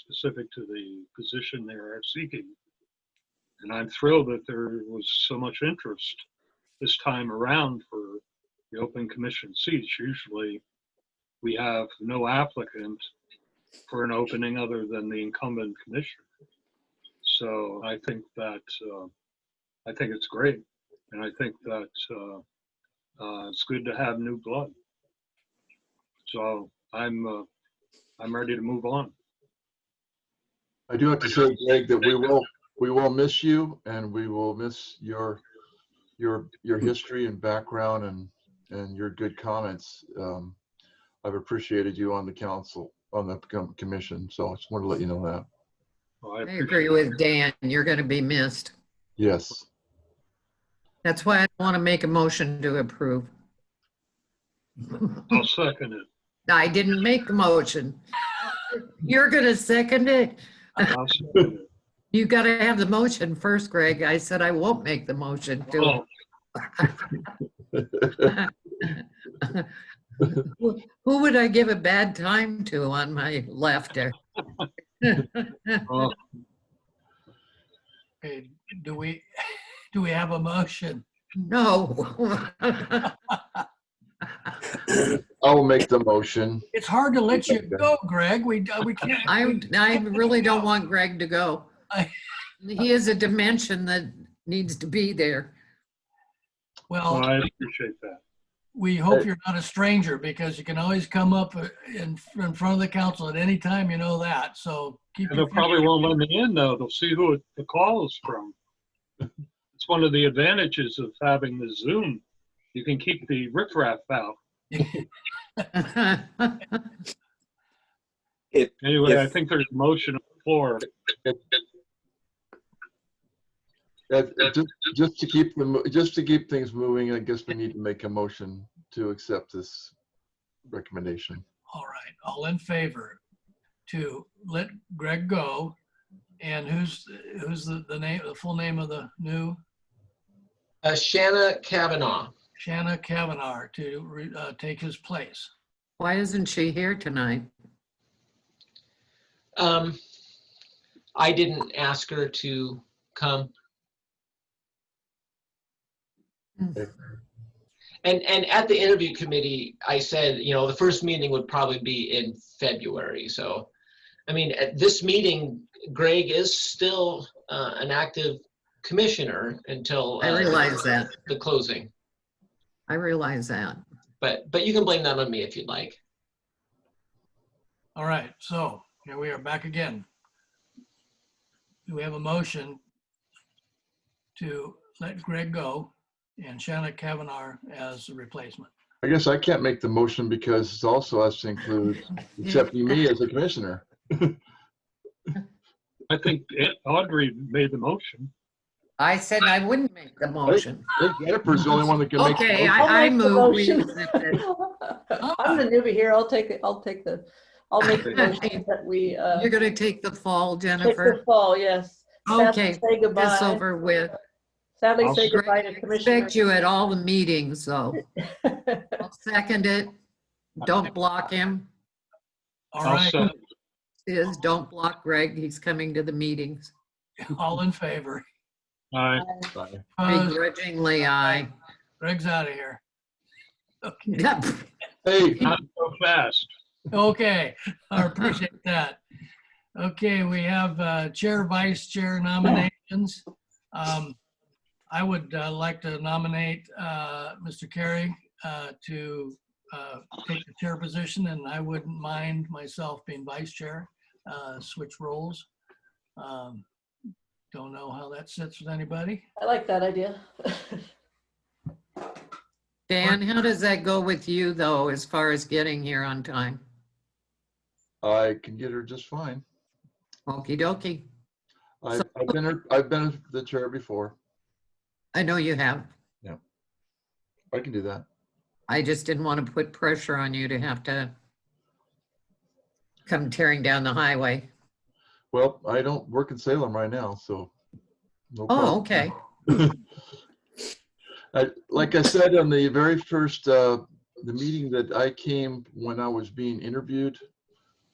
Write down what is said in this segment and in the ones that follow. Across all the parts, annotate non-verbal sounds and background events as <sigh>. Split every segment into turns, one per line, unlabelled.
specific to the position they are seeking. And I'm thrilled that there was so much interest this time around for the open commission seats. Usually, we have no applicant for an opening other than the incumbent commissioner. So I think that, uh, I think it's great. And I think that uh, uh, it's good to have new blood. So I'm, uh, I'm ready to move on.
I do have to say, Greg, that we will, we will miss you and we will miss your, your, your history and background and, and your good comments. Um, I've appreciated you on the council, on the com- commission, so I just want to let you know that.
Well, I
I
appreciate
agree with Dan. You're going to be missed.
Yes.
That's why I want to make a motion to approve.
I'll second it.
I didn't make a motion. You're going to second it?
I'll second it.
You got to have the motion first, Greg. I said I won't make the motion to.
Oh,
Who <laughs> who would I give a bad time to on my left there?
oh,
Okay, do we, <laughs> do we have a motion?
No. <laughs>
I will make the motion.
It's hard to let you go, Greg. We, uh, we can't.
I, I really don't want Greg to go.
I-
He is a dimension that needs to be there. <laughs>
well,
Well,
I appreciate that.
we hope you're not a stranger because you can always come up uh, in, in front of the council at any time, you know that. So keep.
And
your
they probably
fingers-
won't let me in though. They'll see who the call is from. It's one of the advantages of having the Zoom. You can keep the riffraff out. Anyway, I
Yes.
think there's a motion on the floor.
Uh, Just, just to keep them, just to keep things moving, I guess we need to make a motion to accept this recommendation.
All right, all in favor to let Greg go. And who's, who's the, the name, the full name of the new
Uh, Shanna Kavanaugh.
Shanna Kavanaugh to re- uh, take his place?
Why isn't she here tonight?
Um, I didn't ask her to come. And, and at the interview committee, I said, you know, the first meeting would probably be in February. So, I mean, at this meeting, Greg is still uh, an active commissioner until.
I
uh,
realize that.
The closing.
I realize that.
But, but you can blame that on me if you'd like.
All right, so here we are back again. Do we have a motion to let Greg go and Shanna Kavanaugh as a replacement?
I guess I can't make the motion because it also has to include accepting me as a commissioner.
I think Aunt Audrey made the motion.
I said I wouldn't make the motion.
Hey, Jennifer's the only one that can make. the
Okay,
motion.
I'll
I, I
make the
move. we
motion.
accept it.
<laughs> I'm the newbie here. I'll take it. I'll take the, I'll
<laughs>
make the motion that we, uh,
You're gonna take the fall,
take the
Jennifer.
fall, yes. Sadly
Okay,
Say
This
goodbye.
over with.
Sadly
I'll
say
Greg,
goodbye to
I Expect
Commissioner.
you at all the meetings, though.
<laughs>
I'll Second it. Don't block him.
All
I'll
right,
second.
Is, don't block Greg. He's coming to the meetings.
all in favor?
Aye.
Fine.
Opposed?
Begrudgingly, I.
Greg's out of here. Okay,
Oh, Hey,
Not so fast.
Okay, I appreciate that. Okay, we have uh, chair, vice chair nominations. Um, I would uh, like to nominate uh, Mr. Carey uh, to uh, take the chair position, and I wouldn't mind myself being vice chair, uh, switch roles. Um, Don't know how that sits with anybody.
I like that idea.
<laughs>
<laughs>
Dan, how does that go with you, though, as far as getting here on time?
I can get her just fine.
Okey dokey.
I've, I've been, her- I've been the chair before.
I know you have.
I can do that.
I just didn't want to put pressure on you to have to come tearing down the highway.
Well, I don't work in Salem right now, so. no
Oh,
problem.
okay.
I, like I said on the very first, uh, the meeting that I came when I was being interviewed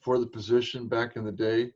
for the position back in the day,